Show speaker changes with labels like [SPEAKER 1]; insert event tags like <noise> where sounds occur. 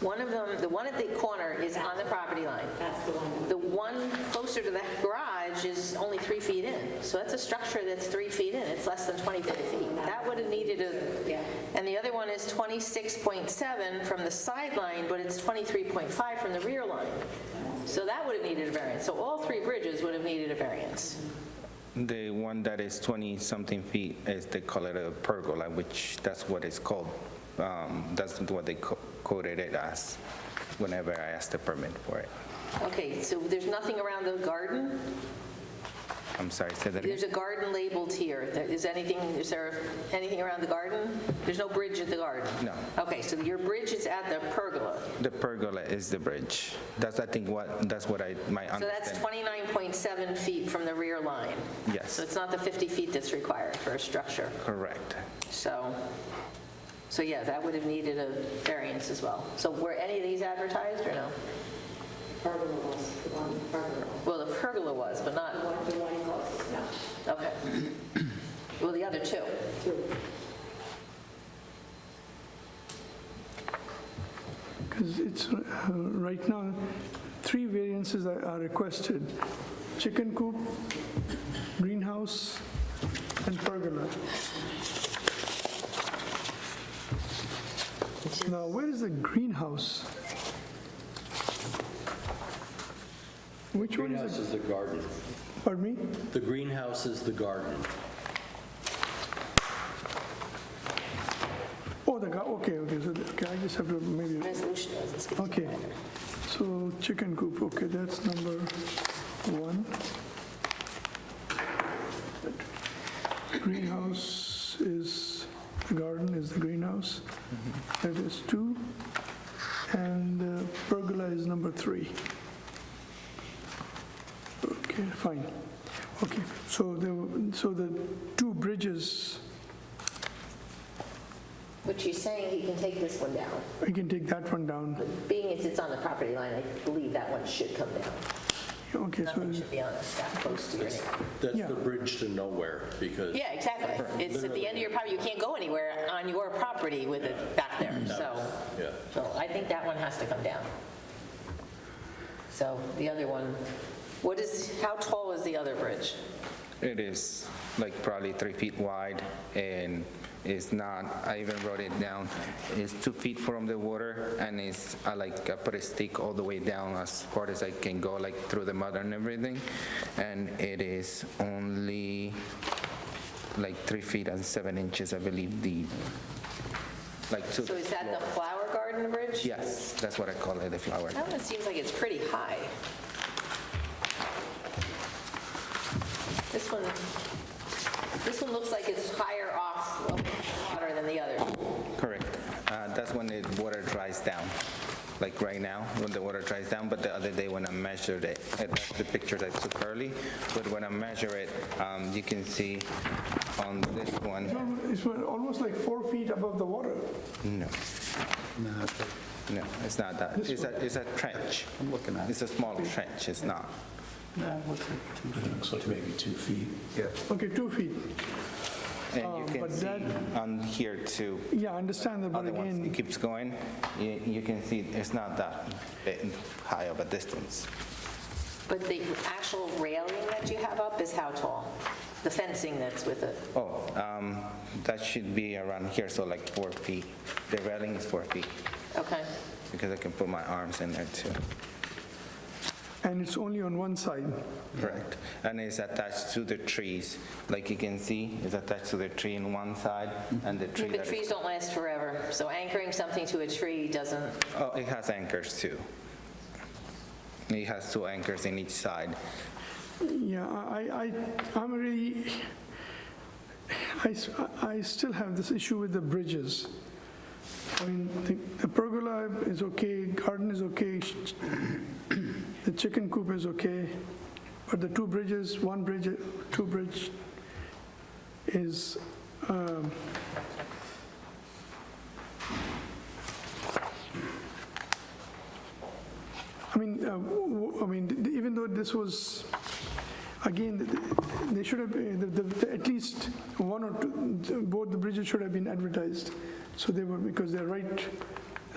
[SPEAKER 1] One of them, the one at the corner is on the property line.
[SPEAKER 2] That's the one.
[SPEAKER 1] The one closer to that garage is only three feet in. So that's a structure that's three feet in. It's less than 25 feet. That would have needed
[SPEAKER 2] Yeah.
[SPEAKER 1] a, and the other one is 26.7 from the sideline, but it's 23.5 from the rear line. So that would have needed a variance. So all three bridges would have needed a variance.
[SPEAKER 3] The one that is 20-something feet is, they call it a pergola, which that's what it's called. Um, That's what they co- quoted it as whenever I asked the permit for it.
[SPEAKER 1] Okay, so there's nothing around the garden?
[SPEAKER 3] I'm sorry, say that again?
[SPEAKER 1] There's a garden labeled here. There- Is anything, is there anything around the garden? There's no bridge at the garden?
[SPEAKER 3] No.
[SPEAKER 1] Okay, so your bridge is at the pergola.
[SPEAKER 3] The pergola is the bridge. That's, I think, what, that's what I, my
[SPEAKER 1] So that's
[SPEAKER 3] understanding.
[SPEAKER 1] 29.7 feet from the rear line.
[SPEAKER 3] Yes.
[SPEAKER 1] So it's not the 50 feet that's required for a structure.
[SPEAKER 3] Correct.
[SPEAKER 1] So, so yeah, that would have needed a variance as well. So were any of these advertised or no?
[SPEAKER 2] Pergola was the one, pergola.
[SPEAKER 1] Well, the pergola was, but
[SPEAKER 2] The
[SPEAKER 1] not,
[SPEAKER 2] one, the one closest, no.
[SPEAKER 1] okay. <clears throat> Well, the other two.
[SPEAKER 2] Two.
[SPEAKER 4] Because it's, uh, right now, three variances are are requested. Chicken coop, greenhouse, and pergola. Now, where is the greenhouse? Which one is
[SPEAKER 5] Greenhouse
[SPEAKER 4] it?
[SPEAKER 5] is the garden.
[SPEAKER 4] Pardon me?
[SPEAKER 5] The greenhouse is the garden.
[SPEAKER 4] Oh, the, gar- okay, okay, so, the- okay, I just have to maybe,
[SPEAKER 1] Resolution doesn't speak to
[SPEAKER 4] okay.
[SPEAKER 1] either.
[SPEAKER 4] So chicken coop, okay, that's number one. Greenhouse is, the garden is the greenhouse. That is two. And uh, pergola is number three. Okay, fine. Okay, so the, so the two bridges,
[SPEAKER 1] Which you're saying he can take this one down.
[SPEAKER 4] I can take that one down.
[SPEAKER 1] But Being as it's on the property line, I believe that one should come down.
[SPEAKER 4] Okay, so.
[SPEAKER 1] Nothing should be on a stack close to your neighbor.
[SPEAKER 5] That's
[SPEAKER 4] Yeah.
[SPEAKER 5] the bridge to nowhere because
[SPEAKER 1] Yeah, exactly. It's at the end of your property, you can't go anywhere on your property with it back there, so.
[SPEAKER 5] yeah.
[SPEAKER 1] So I think that one has to come down. So the other one, what is, how tall is the other bridge?
[SPEAKER 3] It is like probably three feet wide and it's not, I even wrote it down, it's two feet from the water and it's, I like, I put a stick all the way down as far as I can go, like through the mud and everything. And it is only like three feet and seven inches, I believe, deep. Like two,
[SPEAKER 1] So is that the flower garden bridge?
[SPEAKER 3] yes, that's what I call it, the flower.
[SPEAKER 1] That one seems like it's pretty high. This one, this one looks like it's higher off of the water than the other.
[SPEAKER 3] Correct. Uh, That's when the water dries down, like right now, when the water dries down, but the other day when I measured it, uh, that's the picture that I took early, but when I measure it, um, you can see on this one,
[SPEAKER 4] It's almost like four feet above the water.
[SPEAKER 3] no. No, it's not that. It's a, it's a trench. I'm looking at it. It's a small trench, it's not.
[SPEAKER 6] Looks like maybe two feet.
[SPEAKER 4] Okay, two feet.
[SPEAKER 3] And you can
[SPEAKER 4] Oh, but
[SPEAKER 3] see
[SPEAKER 4] that-
[SPEAKER 3] on here too,
[SPEAKER 4] Yeah, I understand that, but
[SPEAKER 3] other ones, it
[SPEAKER 4] again,
[SPEAKER 3] keeps going, you you can see it's not that uh, high of a distance.
[SPEAKER 1] But the actual railing that you have up is how tall? The fencing that's with it?
[SPEAKER 3] Oh, um, that should be around here, so like four feet. The railing is four feet,
[SPEAKER 1] Okay.
[SPEAKER 3] because I can put my arms in there too.
[SPEAKER 4] and it's only on one side.
[SPEAKER 3] Correct. And it's attached to the trees. Like you can see, it's attached to the tree in one side and the tree
[SPEAKER 1] But
[SPEAKER 3] that...
[SPEAKER 1] trees don't last forever, so anchoring something to a tree doesn't,
[SPEAKER 3] Oh, it has anchors too. It has two anchors in each side.
[SPEAKER 4] Yeah, I, I, I'm really, I, s- I still have this issue with the bridges. I mean, the- the pergola is okay, garden is okay, sh- the chicken coop is okay, but the two bridges, one bridge, two bridge is, um, I mean, uh, w- w- I mean, th- even though this was, again, th- th- they should have, uh, the- the- at least one or two, th- both the bridges should have been advertised. So they were, because they're right